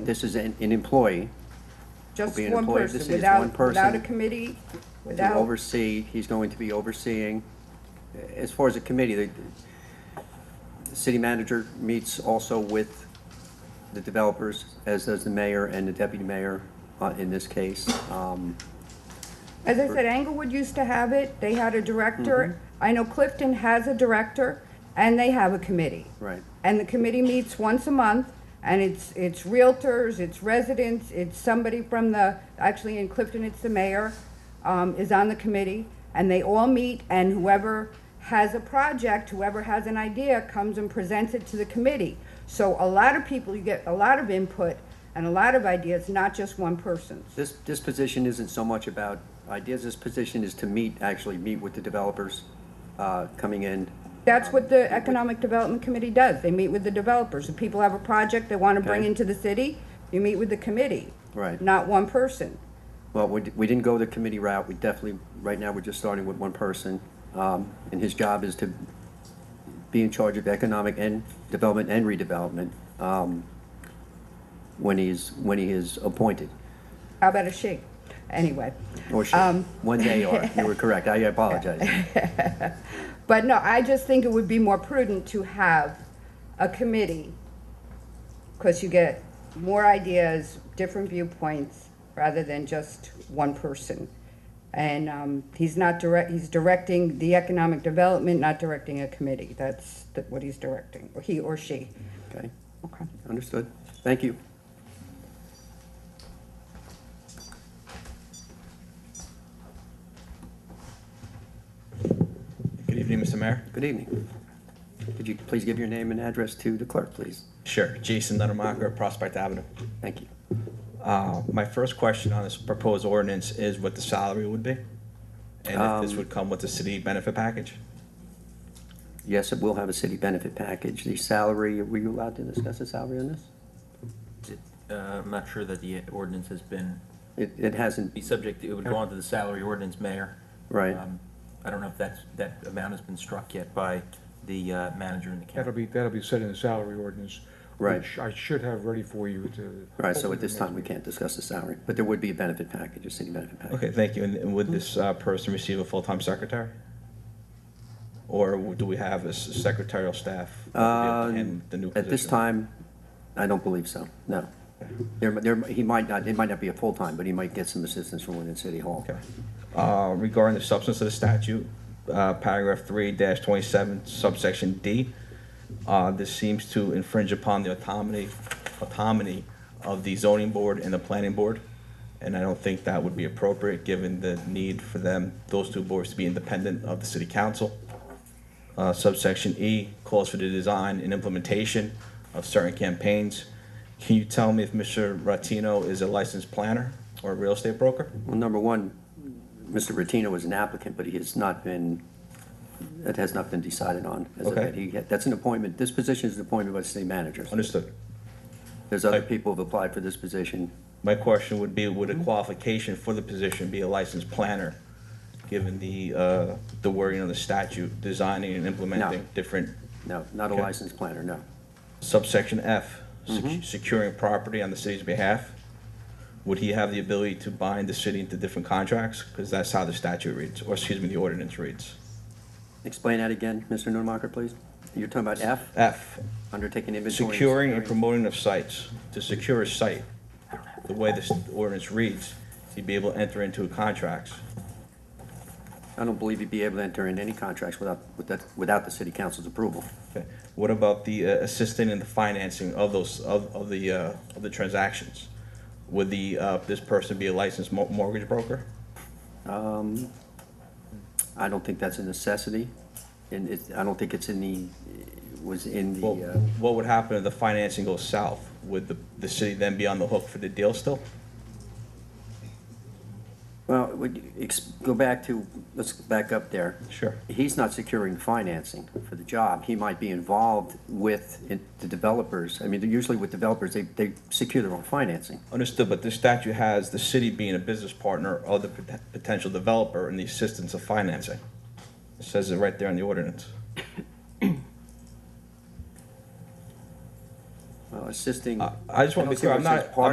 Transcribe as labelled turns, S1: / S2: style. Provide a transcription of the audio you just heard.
S1: This is an, an employee
S2: Just
S1: be an
S2: one
S1: employee. This
S2: person,
S1: is one
S2: without,
S1: person.
S2: without a committee,
S1: to
S2: without,
S1: oversee, he's going to be overseeing. As far as the committee, the, the city manager meets also with the developers, as does the mayor and the deputy mayor, uh, in this case. Um,
S2: as I said, Englewood used to have it, they had a director. I know Clifton has a director, and they have a committee.
S1: right.
S2: And the committee meets once a month, and it's, it's realtors, it's residents, it's somebody from the, actually in Clifton, it's the mayor, um, is on the committee, and they all meet, and whoever has a project, whoever has an idea, comes and presents it to the committee. So a lot of people, you get a lot of input and a lot of ideas, not just one person's.
S1: This, this position isn't so much about ideas, this position is to meet, actually meet with the developers, uh, coming in.
S2: That's what the Economic Development Committee does, they meet with the developers, if people have a project they wanna bring
S1: Okay.
S2: into the city, you meet with the committee.
S1: Right.
S2: Not one person.
S1: Well, we, we didn't go the committee route, we definitely, right now, we're just starting with one person. Um, and his job is to be in charge of economic and development and redevelopment, um, when he's, when he is appointed.
S2: How about a she? Anyway,
S1: Or she, one day or, you were correct, I apologize.
S2: but no, I just think it would be more prudent to have a committee because you get more ideas, different viewpoints, rather than just one person. And um, he's not direct, he's directing the economic development, not directing a committee. That's th- what he's directing, or he or she.
S1: Okay,
S2: Okay.
S1: understood, thank you.
S3: Good evening, Mr. Mayor.
S1: Good evening. Could you please give your name and address to the clerk, please?
S3: Sure, Jason Nuttamacher, Prospect Avenue.
S1: Thank you.
S3: Uh, My first question on this proposed ordinance is what the salary would be? And if
S1: Um,
S3: this would come with the city benefit package?
S1: Yes, it will have a city benefit package. The salary, were you allowed to discuss the salary on this?
S4: It- uh, I'm not sure that the ordinance has been,
S1: It, it hasn't,
S4: be subject, it would go on to the salary ordinance, Mayor.
S1: Right.
S4: Um, I don't know if that's, that amount has been struck yet by the uh, manager in the
S5: That'll
S4: county.
S5: be, that'll be set in the salary ordinance.
S1: Right.
S5: which I should have ready for you to.
S1: all right, so at this time, we can't discuss the salary, but there would be a benefit package, a city benefit package.
S3: Okay, thank you. And- And would this uh, person receive a full-time secretary? Or do we have a s- secretarial staff? that
S1: Uh,
S3: would be able to handle the new
S1: At this
S3: position?
S1: time, I don't believe so, no. There, there, he might not, it might not be a full-time, but he might get some assistance from within City Hall.
S3: Okay. Uh, Regarding the substance of the statute, uh, paragraph three dash twenty-seven subsection D, uh, this seems to infringe upon the autonomy, autonomy of the zoning board and the planning board. And I don't think that would be appropriate, given the need for them, those two boards to be independent of the city council. Uh, Subsection E calls for the design and implementation of certain campaigns. Can you tell me if Mr. Ratino is a licensed planner or a real estate broker?
S1: Well, number one, Mr. Rotino is an applicant, but he has not been, it has not been decided on. as of
S3: Okay.
S1: yet. He, that's an appointment, this position is an appointment by the city manager.
S3: Understood.
S1: There's other people who've applied for this position.
S3: My question would be, would a qualification for the position be a licensed planner, given the, uh, the wording of the statute, designing and implementing different
S1: No, not a
S3: Okay.
S1: licensed planner, no.
S3: subsection F, sec- securing property on the city's behalf? Would he have the ability to bind the city into different contracts? Because that's how the statute reads, or excuse me, the ordinance reads.
S1: Explain that again, Mr. Nordmacher, please. You're talking about F,
S3: F,
S1: undertaking inventory. and
S3: securing and
S1: securing.
S3: promoting of sites, to secure a site, the way this ordinance reads, he'd be able to enter into contracts.
S1: I don't believe you'd be able to enter in any contracts without, without, without the city council's approval.
S3: Okay. What about the uh, assisting and the financing of those, of, of the, uh, of the transactions? Would the, uh, this person be a licensed mo- mortgage broker?
S1: I don't think that's a necessity, and it, I don't think it's in the, was in
S3: Well,
S1: the, uh,
S3: what would happen if the financing goes south? Would the, the city then be on the hook for the deal still?
S1: well, would, you ex, go back to, let's back up there.
S3: Sure.
S1: He's not securing financing for the job. He might be involved with in- the developers. I mean, they're usually with developers, they, they secure their own financing.
S3: Understood, but this statute has the city being a business partner of the pot- potential developer and the assistance of financing. It says it right there in the ordinance.
S1: Well, assisting.
S3: I- I just wanna
S1: don't
S3: be
S1: see
S3: clear,
S1: where
S3: I'm
S1: it says
S3: not-
S1: part-